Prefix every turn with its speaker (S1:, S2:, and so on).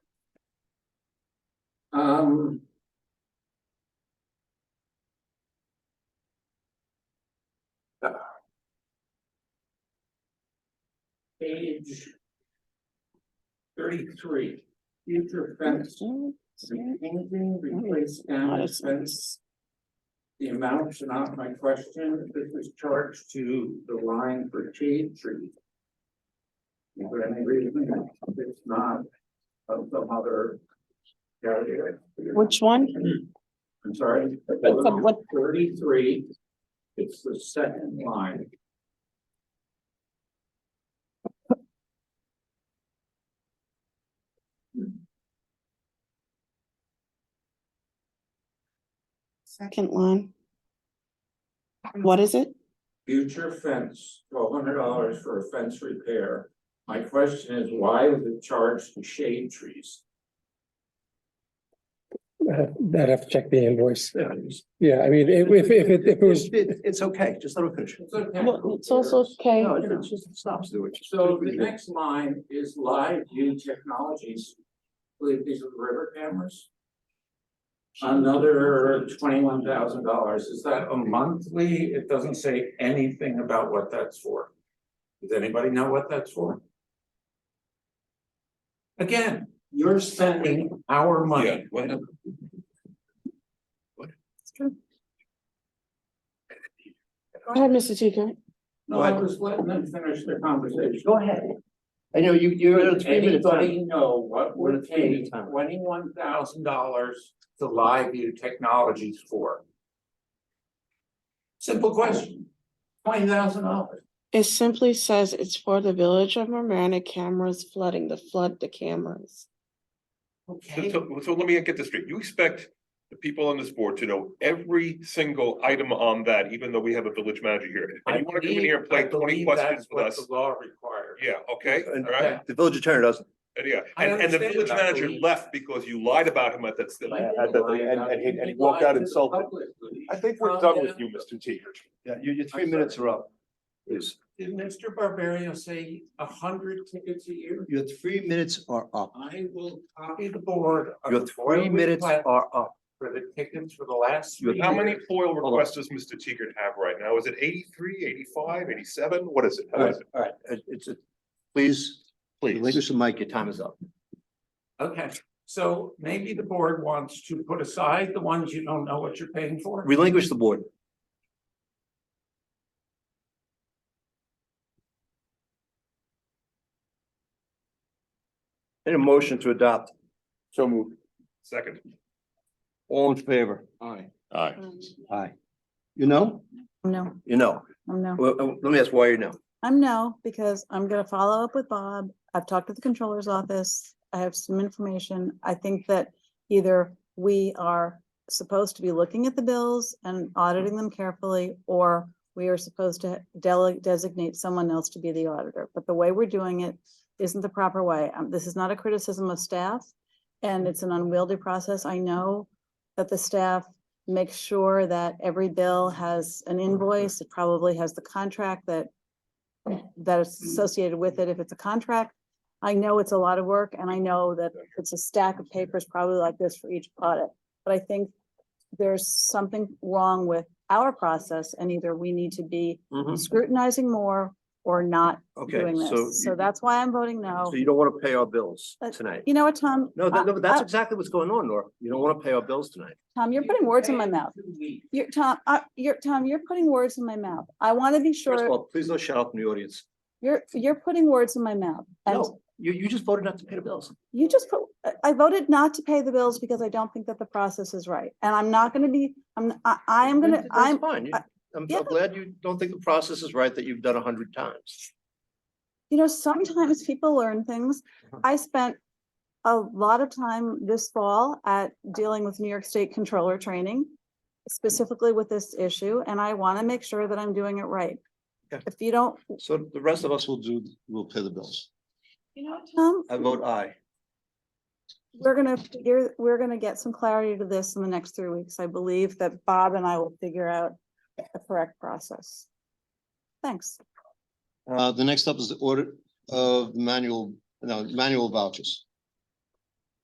S1: Um. Page. Thirty-three, future fence, anything replace down fence. The amount's not my question, this is charged to the line for shade tree. Is there any reason it's not of some other area?
S2: Which one?
S1: I'm sorry.
S2: What's up, what-
S1: Thirty-three, it's the second line.
S2: Second line. What is it?
S1: Future fence, twelve hundred dollars for a fence repair. My question is, why is it charged to shade trees?
S3: Uh, I'd have to check the invoice. Yeah, I mean, if, if, if it, if it was,
S4: It's, it's okay, just let it finish.
S1: It's okay.
S2: Well, It's also okay.
S4: No, it's just, it stops doing.
S1: So the next line is live view technologies. I believe these are the river cameras. Another twenty-one thousand dollars. Is that a monthly? It doesn't say anything about what that's for. Does anybody know what that's for? Again, you're spending our money.
S2: Go ahead, Mr. Teacher.
S1: No, I was letting them finish their conversation.
S4: Go ahead. I know you, you're.
S1: Does Anybody know what
S4: We're
S1: we're
S4: at three minutes
S1: paying
S4: time.
S1: twenty-one thousand dollars to Live View Technologies for? Simple question, twenty thousand dollars.
S2: It simply says it's for the village of Marana cameras flooding, the flood the cameras.
S5: So, so, so let me get this straight. You expect the people on this board to know every single item on that, even though we have a village manager here. And you wanna come in here and play twenty questions with us?
S1: The law requires.
S5: Yeah, okay, all right,
S4: The village attorney doesn't.
S5: and yeah,
S1: I
S5: and, and the
S1: understand
S5: village
S1: that, I
S5: manager
S1: believe.
S5: left because you lied about him at that. still-
S1: Like,
S6: I thought they- and- and he- and he walked out
S1: lied to the
S6: insulted.
S1: public.
S6: I think we're done with you, Mr. Teeter.
S4: Yeah, your, your three minutes are up. Please,
S1: Did Mr. Barbario say a hundred tickets a year?
S4: your three minutes are up.
S1: I will copy the board. of
S4: Your
S1: FOIA
S4: three minutes
S1: request
S4: are up.
S1: For the tickets for the last.
S4: Your-
S1: three
S5: How many
S1: years.
S5: FOIL
S4: on.
S5: requests does Mr. Teeger have right now? Is it 83, 85, 87? What is it?
S4: All
S5: How
S4: right,
S5: is it?
S4: all right, It- it's a, please,
S5: Please.
S4: relinquish the mic, your time is up.
S1: Okay, so maybe the board wants to put aside the ones you don't know what you're paying for?
S4: Relinquish the board. And a motion to adopt.
S6: So moved.
S5: Second,
S4: All in favor?
S6: Aye.
S4: Aye. You know?
S7: No,
S4: You know.
S7: I'm no.
S4: Well, uh, let me ask why you know.
S7: I'm no, because I'm gonna follow up with Bob. I've talked to the controller's office. I have some information. I think that either we are supposed to be looking at the bills and auditing them carefully, or we are supposed to dele- designate someone else to be the auditor. But the way we're doing it isn't the proper way. Um, this is not a criticism of staff, and it's an unwieldy process. I know that the staff makes sure that every bill has an invoice. It probably has the contract that that is
S4: Mm.
S7: associated with it, if it's a contract. I know it's a lot of work and I know that it's a stack of papers probably like this for each audit, but I think there's something wrong with our process and either we need to be scrutinizing more or not
S4: Mm. Okay,
S7: doing
S4: so.
S7: this. So
S4: you-
S7: that's why I'm voting no.
S4: So you don't want to pay our bills
S7: Uh,
S4: tonight.
S7: You know what, Tom? Uh,
S4: No,
S7: I-
S4: that- no, but that's
S7: I-
S4: exactly what's going on, Nora. You don't want to pay our bills tonight.
S7: Tom, you're putting words in my mouth.
S1: Two weeks.
S7: You're Tom, I, you're Tom, you're putting words in my mouth. I want to be
S4: First of
S7: sure,
S4: all, please don't shout out from the audience.
S7: you're, you're putting words in my mouth. And
S4: No, you, you just voted not to pay the bills.
S7: You just put, I- I voted not to pay the bills because I don't think that the process is right, and I'm not gonna be, I'm, I, I am gonna,
S4: That's
S7: I'm,
S4: Fine. You-
S7: I-
S4: I'm
S7: yeah.
S4: I'm glad you don't think the process is right that you've done a hundred times.
S7: you know, sometimes people learn things. I spent a lot of time this fall at dealing with New York State Controller Training, specifically with this issue, and I wanna make sure that I'm doing it right.
S4: Okay.
S7: If you don't,
S4: So the rest of us will do, will pay the bills.
S7: you know, Tom,
S4: I vote aye.
S7: we're gonna figure, we're gonna get some clarity to this in the next three weeks. I believe that Bob and I will figure out the correct process. Thanks.
S8: Uh, the next up is the audit of the manual, no, manual vouchers.